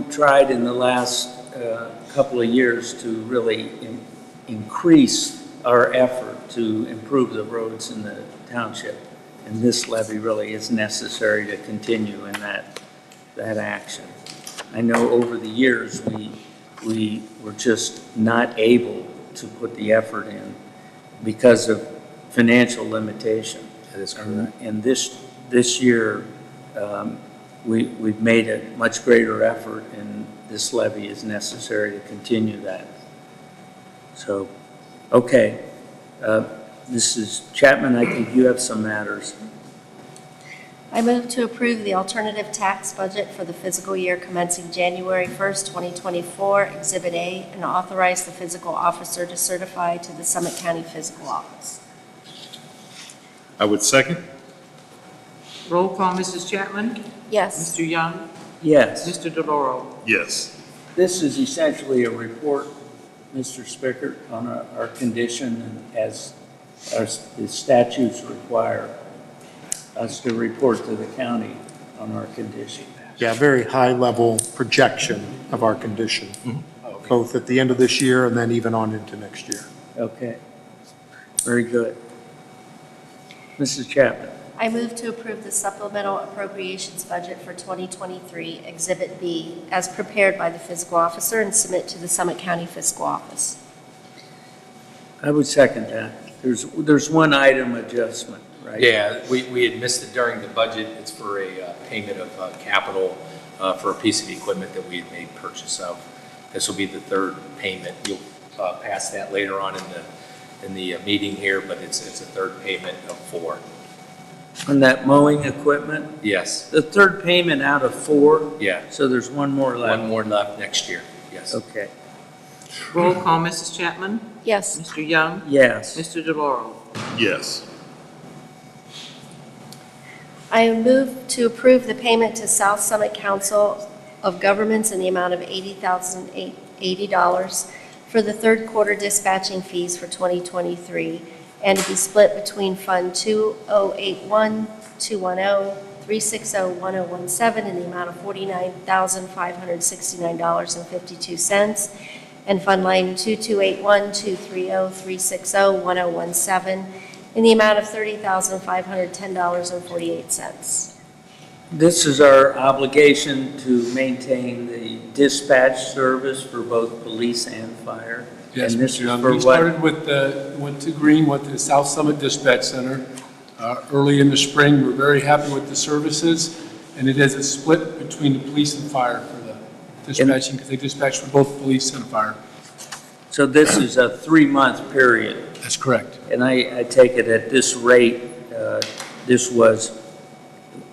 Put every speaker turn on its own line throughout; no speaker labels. tried in the last uh, couple of years to really in- increase our effort to improve the roads in the township. And this levy really is necessary to continue in that, that action. I know over the years, we, we were just not able to put the effort in because of financial limitation.
That is
And- And this, this year, um, we, we've made a much greater effort, and this levy is necessary to continue that. So, okay. Uh, Mrs. Chapman, I think you have some matters.
I move to approve the alternative tax budget for the fiscal year commencing January 1st, 2024, Exhibit A, and authorize the fiscal officer to certify to the Summit County Fiscal Office.
I would second.
Roll call, Mrs. Chapman?
Yes.
Mr. Young?
Yes,
Mr. DeLauro?
Yes.
this is essentially a report, Mr. Spicker, on our, our condition as our s- the statutes require us to report to the county on our condition.
Yeah, very high-level projection of our condition, both at the end of this year and then even on into next year.
Okay, very good. Mrs. Chapman?
I move to approve the supplemental appropriations budget for 2023, Exhibit B, as prepared by the fiscal officer and submit to the Summit County Fiscal Office.
I would second that. There's, there's one item adjustment, right?
Yeah, we, we had missed it during the budget. It's for a uh, payment of uh, capital uh, for a piece of equipment that we had made purchase of. This will be the third payment. You'll uh, pass that later on in the, in the uh, meeting here, but it's, it's a third payment of four.
On that mowing equipment,
Yes,
the third payment out of four,
yeah.
so there's one more
One
left.
more left next year, yes.
Okay,
Roll call, Mrs. Chapman?
Yes.
Mr. Young?
yes.
Mr. DeLauro?
Yes.
I move to approve the payment to South Summit Council of Governments in the amount of $80,080 for the third quarter dispatching fees for 2023, and to be split between Fund 2081, 210, 360, 1017, in the amount of $49,569.52, and Fund Line 2281, 230, 360, 1017, in the amount of $30,510.48.
This is our obligation to maintain the dispatch service for both police and fire.
Yes,
And this is
Mr. Young.
for
We
what-
started with, the- went to Green, went to the South Summit Dispatch Center uh, early in the spring. We're very happy with the services, and it is a split between the police and fire for the dispatching, because they dispatch for both police and fire.
So this is a three-month period.
That's correct.
And I, I take it at this rate, uh, this was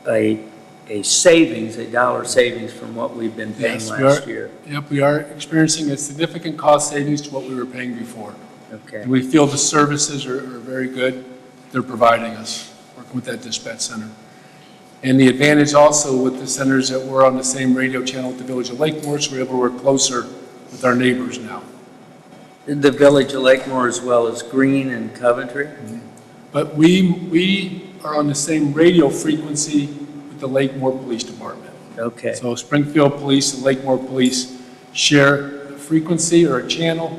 a, a savings, a dollar savings from what we've been paying
Yes, we
last
are.
year.
Yep, we are experiencing a significant cost savings to what we were paying before.
Okay,
And we feel the services are are very good. They're providing us, working with that dispatch center. And the advantage also with the centers that we're on the same radio channel with the Village of Lakemore, so we're able to work closer with our neighbors now.
the Village of Lakemore as well as Green and Coventry?
But we, we are on the same radio frequency with the Lakemore Police Department.
Okay,
So Springfield Police and Lakemore Police share a frequency or a channel,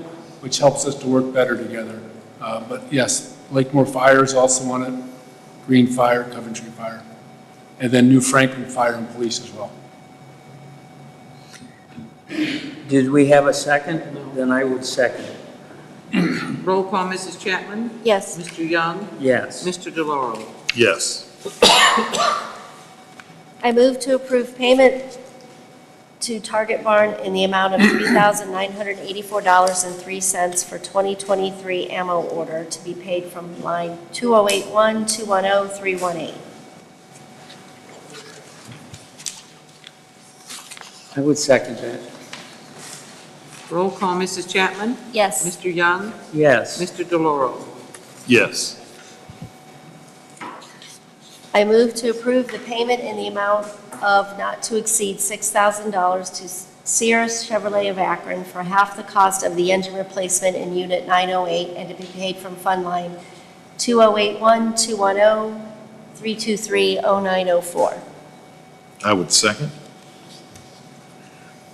which helps us to work better together. Uh, But yes, Lakemore Fire is also on it, Green Fire, Coventry Fire, and then New Franklin Fire and Police as well.
did we have a second? Then I would second it.
Roll call, Mrs. Chapman?
Yes.
Mr. Young?
Yes.
Mr. DeLauro?
Yes.
I move to approve payment to Target Barn in the amount of $3,984.03 for 2023 ammo order to be paid from line 2081, 210, 318.
I would second that.
Roll call, Mrs. Chapman?
Yes.
Mr. Young?
Yes.
Mr. DeLauro?
Yes.
I move to approve the payment in the amount of not to exceed $6,000 to Sierra Chevrolet of Akron for half the cost of the engine replacement in Unit 908 and to be paid from Fund Line 2081 210 323 0904.
I would second.